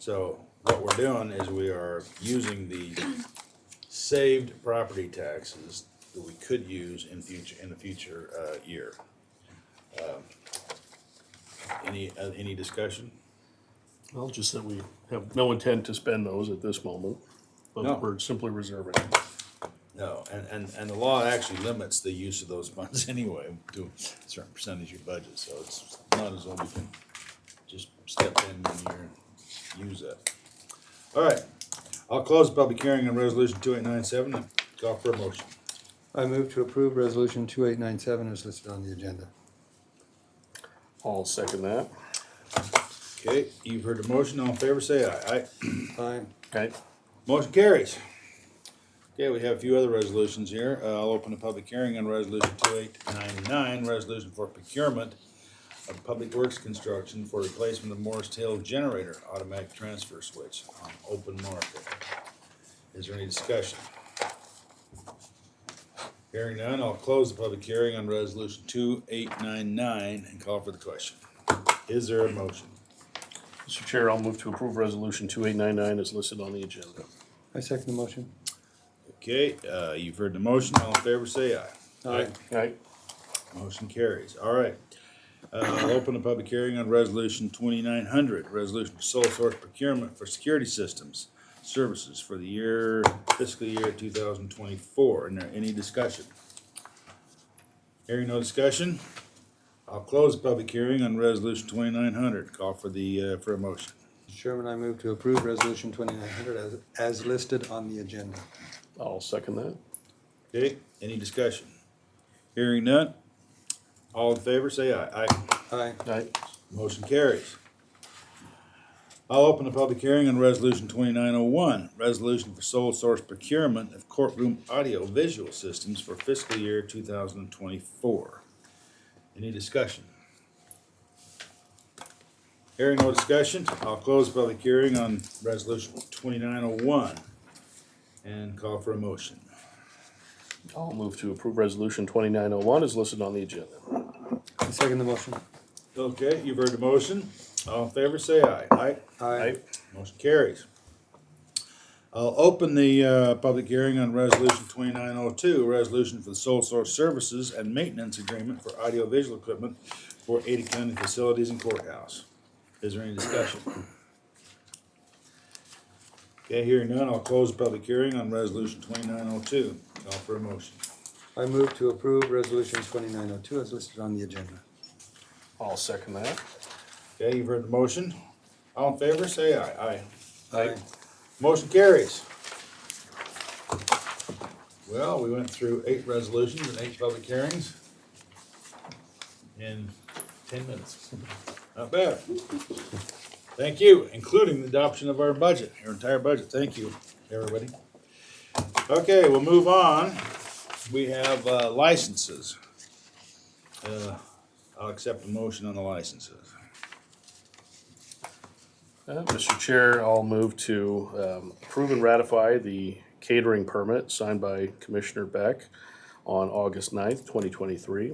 So what we're doing is we are using the saved property taxes that we could use in future, in the future, uh, year. Um, Any, uh, any discussion? Well, just that we have no intent to spend those at this moment, No. but we're simply reserving. No, and, and, and the law actually limits the use of those funds anyway to a certain percentage of your budget, so it's not as though we can just step in when you're, use that. All right, I'll close the public hearing on resolution two eight nine seven and call for a motion. I move to approve resolution two eight nine seven as listed on the agenda. I'll second that. Okay, you've heard the motion, all in favor, say aye. Aye. Aye. Okay. Motion carries. Okay, we have a few other resolutions here. Uh, I'll open a public hearing on resolution two eight nine nine, resolution for procurement of public works construction for replacement of Morris Hill generator automatic transfer switch on open market. Is there any discussion? Hearing none, I'll close the public hearing on resolution two eight nine nine and call for the question. Is there a motion? Mr. Chair, I'll move to approve resolution two eight nine nine as listed on the agenda. I second the motion. Okay, uh, you've heard the motion. All in favor, say aye. Aye. Okay. Motion carries. All right. Uh, I'll open a public hearing on resolution twenty-nine hundred, resolution for sole source procurement for security systems services for the year, fiscal year two thousand twenty-four. And there any discussion? Hearing no discussion, I'll close the public hearing on resolution twenty-nine hundred. Call for the, uh, for a motion. Mr. Chairman, I move to approve resolution twenty-nine hundred as, as listed on the agenda. I'll second that. Okay, any discussion? Hearing none, all in favor, say aye. Aye. Aye. Okay. Motion carries. I'll open the public hearing on resolution twenty-nine oh one, resolution for sole source procurement of courtroom audio visual systems for fiscal year two thousand and twenty-four. Any discussion? Hearing no discussion, I'll close the public hearing on resolution twenty-nine oh one and call for a motion. I'll move to approve resolution twenty nine oh one as listed on the agenda. I second the motion. Okay, you've heard the motion. All in favor, say aye. Aye. Okay. Motion carries. I'll open the uh, public hearing on Resolution 2902, Resolution for the Sole Source Services and Maintenance Agreement for Audiovisual Equipment for Ada County Facilities and Courthouse. Is there any discussion? Okay, hearing none, I'll close the public hearing on Resolution 2902. Call for a motion. I move to approve resolution twenty-nine oh two as listed on the agenda. I'll second that. Okay, you've heard the motion. All in favor, say aye. Aye. Aye. Motion carries. Well, we went through eight resolutions and eight public hearings in ten minutes. Not bad. Thank you, including the adoption of our budget, our entire budget. Thank you, everybody. Okay, we'll move on. We have uh, licenses. Uh, I'll accept a motion on the licenses. Uh, Mr. Chair, I'll move to um, approve and ratify the catering permit signed by Commissioner Beck on August 9th, 2023,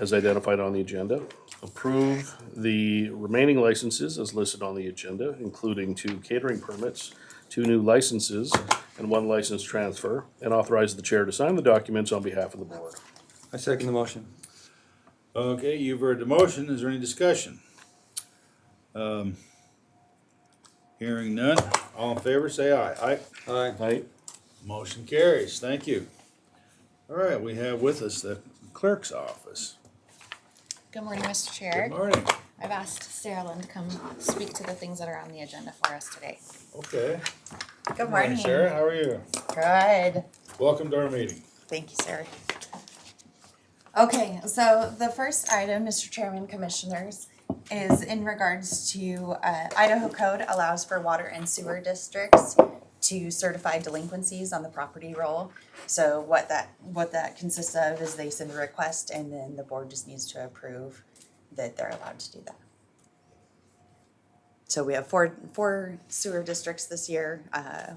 as identified on the agenda. Approve the remaining licenses as listed on the agenda, including two catering permits, two new licenses, and one license transfer, and authorize the chair to sign the documents on behalf of the board. I second the motion. Okay, you've heard the motion. Is there any discussion? Um, Hearing none. All in favor, say aye. Aye. Aye. Right? Motion carries. Thank you. All right, we have with us the clerk's office. Good morning, Mr. Good Chair. morning. I've asked Sarah Lynn to come speak to the things that are on the agenda for us today. Okay. Good Sarah, how are you? Good. Welcome to our meeting. Thank you, sir. Okay, so the first item, Mr. Chairman, Commissioners, is in regards to uh, Idaho Code allows for water and sewer districts to certify delinquencies on the property roll. So what that, what that consists of is they send a request and then the board just needs to approve that they're allowed to do that. So we have four, four sewer districts this year, uh,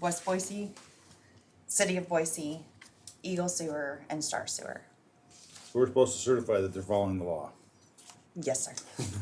West Boise, City of Boise, Eagle Sewer and Star Sewer. We're supposed to certify that they're following the law. Yes, sir.